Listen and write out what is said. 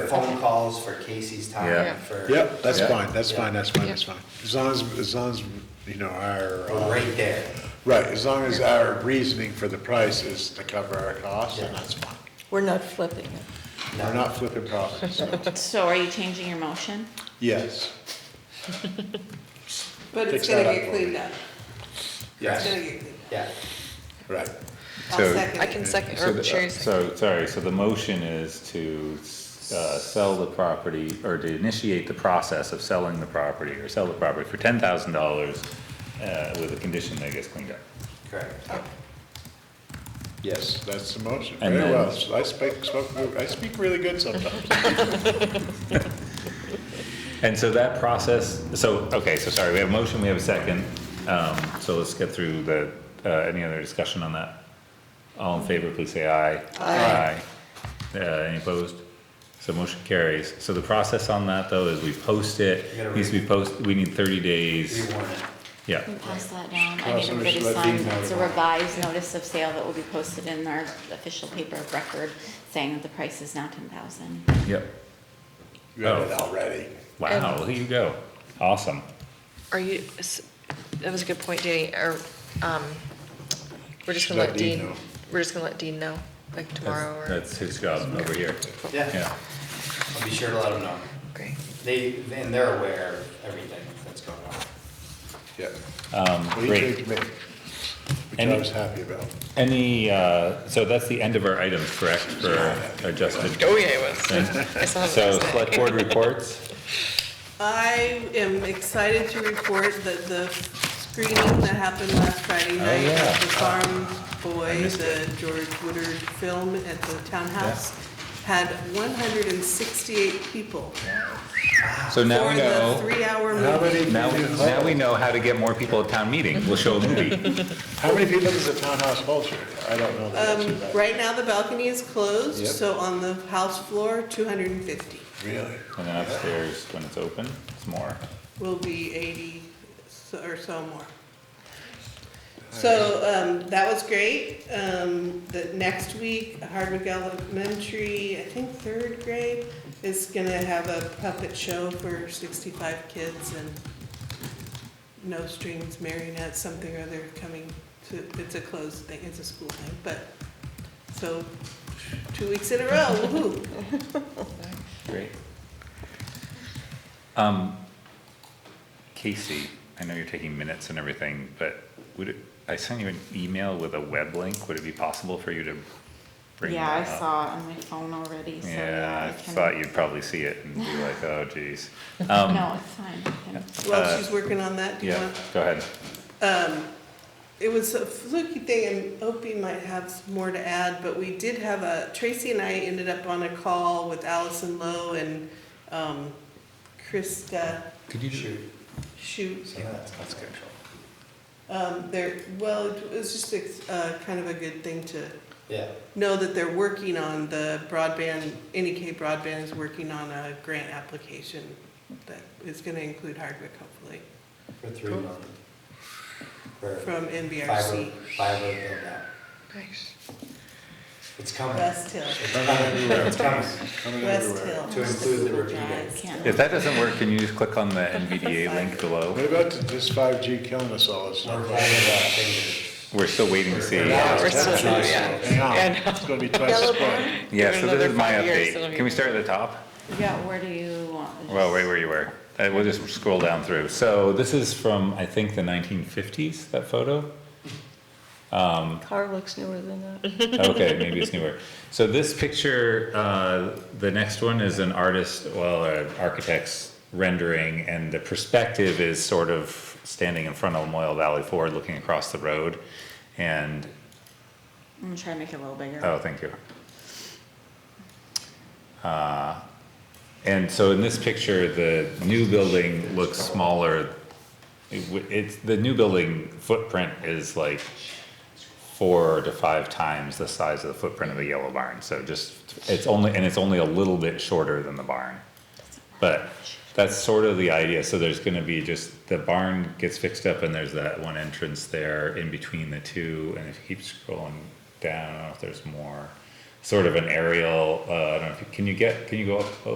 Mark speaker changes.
Speaker 1: phone calls for Casey's
Speaker 2: Yeah.
Speaker 1: time, for.
Speaker 3: Yep, that's
Speaker 2: Yeah.
Speaker 3: fine, that's fine, that's fine,
Speaker 4: Yeah.
Speaker 3: that's fine. As long as, as long as, you know, our,
Speaker 1: We're
Speaker 3: uh,
Speaker 1: Right there.
Speaker 3: right, as long as our reasoning for the price is to cover our costs, then
Speaker 1: Yeah.
Speaker 3: that's fine.
Speaker 4: We're not flipping it.
Speaker 3: We're not flipping profits, so,
Speaker 5: So are you changing your motion?
Speaker 3: yes.
Speaker 6: But
Speaker 3: Fix
Speaker 6: it's gonna
Speaker 3: that up
Speaker 6: get
Speaker 3: for me.
Speaker 6: cleaned up. It's gonna
Speaker 1: Yes,
Speaker 6: get cleaned
Speaker 1: yeah.
Speaker 3: Right.
Speaker 6: up. I'll
Speaker 2: So-
Speaker 6: second
Speaker 4: I
Speaker 6: it.
Speaker 4: can second,
Speaker 2: So,
Speaker 4: or
Speaker 2: the- uh,
Speaker 4: Sherry's,
Speaker 2: so, sorry, so the motion is to, uh, sell the property, or to initiate the process of selling the property, or sell the property for ten thousand dollars, uh, with a condition that it gets cleaned up.
Speaker 1: Correct.
Speaker 3: Yes, that's the motion,
Speaker 2: And
Speaker 3: very well,
Speaker 2: then-
Speaker 3: I speak, spoke- I speak really good sometimes.
Speaker 2: And so that process, so, okay, so sorry, we have a motion, we have a second, um, so let's get through the, uh, any other discussion on that? All in favor, please say aye. Aye. Uh, any opposed? So motion carries. So the process on that though is we post it,
Speaker 1: You gotta
Speaker 2: needs to be
Speaker 1: read-
Speaker 2: posted, we need thirty
Speaker 1: We
Speaker 2: days,
Speaker 1: want it.
Speaker 2: yeah.
Speaker 5: Can we pass that down? I
Speaker 3: Uh,
Speaker 5: need
Speaker 3: so
Speaker 5: everybody
Speaker 3: should
Speaker 5: to
Speaker 3: I be
Speaker 5: sign, it's a
Speaker 3: notified?
Speaker 5: revised notice of sale that will be posted in our official paper of record saying that the price is now ten thousand.
Speaker 2: Yep.
Speaker 3: You had
Speaker 2: Oh.
Speaker 3: it already.
Speaker 2: Wow, here you go. Awesome.
Speaker 7: Are you, s- that was a good point, Danny, or, um, we're just gonna
Speaker 3: Let
Speaker 7: let
Speaker 3: Dean
Speaker 7: Dean,
Speaker 3: know.
Speaker 7: we're just gonna let Dean know, like tomorrow
Speaker 2: That's-
Speaker 7: or,
Speaker 2: That's his job over here,
Speaker 1: Yeah,
Speaker 2: yeah.
Speaker 1: I'll be sure to let them know.
Speaker 7: great.
Speaker 1: They, and they're aware of everything that's going on.
Speaker 3: Yeah.
Speaker 2: Um,
Speaker 3: What do you
Speaker 2: great.
Speaker 3: think, Mick? Which
Speaker 2: Any-
Speaker 3: I was happy about.
Speaker 2: Any, uh, so that's the end of our items, correct, for adjusted?
Speaker 7: Oh, yeah, it was. I saw it
Speaker 2: So
Speaker 7: last night.
Speaker 2: select board reports?
Speaker 6: I am excited to report that the screening that happened last Friday night
Speaker 2: Oh, yeah.
Speaker 6: of the Farm Boy, the George Woodard film at the townhouse, had one hundred and sixty-eight people
Speaker 2: So now
Speaker 6: for
Speaker 2: we
Speaker 6: the
Speaker 2: know,
Speaker 6: three-hour
Speaker 3: How
Speaker 6: movie.
Speaker 3: many,
Speaker 2: now, now we know how to get more people at town meeting. We'll show a movie.
Speaker 3: how many people does the townhouse hold here? I don't know. the answer to
Speaker 6: Um,
Speaker 3: that.
Speaker 6: right now, the balcony is closed,
Speaker 3: Yep.
Speaker 6: so on the house floor, two hundred and fifty
Speaker 3: Really?
Speaker 2: And then upstairs, when it's open, it's more.
Speaker 6: will be eighty so- or so more. So, um, that was great. Um, the next week, Hardwick Elementary, I think third grade, is gonna have a puppet show for sixty-five kids and no strings, marionettes, something or other coming to, it's a closed thing, it's a school thing, but, so, two weeks in a row, woo-hoo.
Speaker 2: Great. Um, Casey, I know you're taking minutes and everything, but would it, I sent you an email with a web link. Would it be possible for you to bring
Speaker 5: Yeah, I
Speaker 2: that up?
Speaker 5: saw it on my phone already, so
Speaker 2: Yeah, I
Speaker 5: yeah, I can.
Speaker 2: thought you'd probably see it and be like, oh geez. Um,
Speaker 5: No, it's fine. I can-
Speaker 6: Well,
Speaker 2: Uh,
Speaker 6: she's working on that, do you
Speaker 2: Yeah,
Speaker 6: want?
Speaker 2: go ahead.
Speaker 6: Um, It was a fluky thing, and Opie might have some more to add, but we did have a, Tracy and I ended up on a call with Allison Lowe and um, Krista
Speaker 2: Could you
Speaker 1: Shoot,
Speaker 6: Shute.
Speaker 1: some of that's confidential.
Speaker 6: Um, There, well, it was just a, uh, kind of a good thing to
Speaker 1: Yeah,
Speaker 6: know that they're working on the broadband, NEK Broadband is working on a grant application that is gonna include Hardwick hopefully,
Speaker 1: for three months. For
Speaker 6: from
Speaker 1: fiber,
Speaker 6: NBRC.
Speaker 1: fiber build out.
Speaker 7: Nice.
Speaker 1: It's coming.
Speaker 6: West Hill,
Speaker 1: It's coming, it's coming.
Speaker 3: Coming
Speaker 6: West
Speaker 3: everywhere.
Speaker 6: Hill.
Speaker 1: To include the
Speaker 5: Yeah, I
Speaker 1: repeater.
Speaker 5: can't.
Speaker 2: If that doesn't work, can you just click on the NVDA link below?
Speaker 3: What about this 5G killing us all? It's
Speaker 1: We're
Speaker 3: not-
Speaker 1: holding our fingers.
Speaker 2: We're still waiting to see.
Speaker 1: Yeah.
Speaker 7: We're still,
Speaker 3: Hang
Speaker 7: yeah.
Speaker 3: on,
Speaker 7: Yeah,
Speaker 3: It's gonna be twice as bad.
Speaker 2: Yeah,
Speaker 7: Give it
Speaker 2: so
Speaker 7: another
Speaker 2: this is my
Speaker 7: five years, it'll
Speaker 2: update.
Speaker 7: be-
Speaker 2: Can we start at the top?
Speaker 5: Yeah, where do you want?
Speaker 2: Well, right where you were. Uh, We'll just scroll down through. So this is from, I think, the nineteen fifties, that photo?
Speaker 4: car looks newer than that.
Speaker 2: Okay, maybe it's newer. So this picture, uh, the next one is an artist, well, an architect's rendering, and the perspective is sort of standing in front of Moyle Valley Ford, looking across the road. And,
Speaker 5: I'm gonna try to make it a little bigger.
Speaker 2: oh, thank you. Uh, And so in this picture, the new building looks smaller. It w- It's, the new building footprint is like four to five times the size of the footprint of the yellow barn. So just, it's only, and it's only a little bit shorter than the barn. But that's sort of the idea. So there's gonna be just, the barn gets fixed up and there's that one entrance there in between the two. And if you keep scrolling down, I don't know if there's more, sort of an aerial, uh, I don't know, if you- can you get, can you go up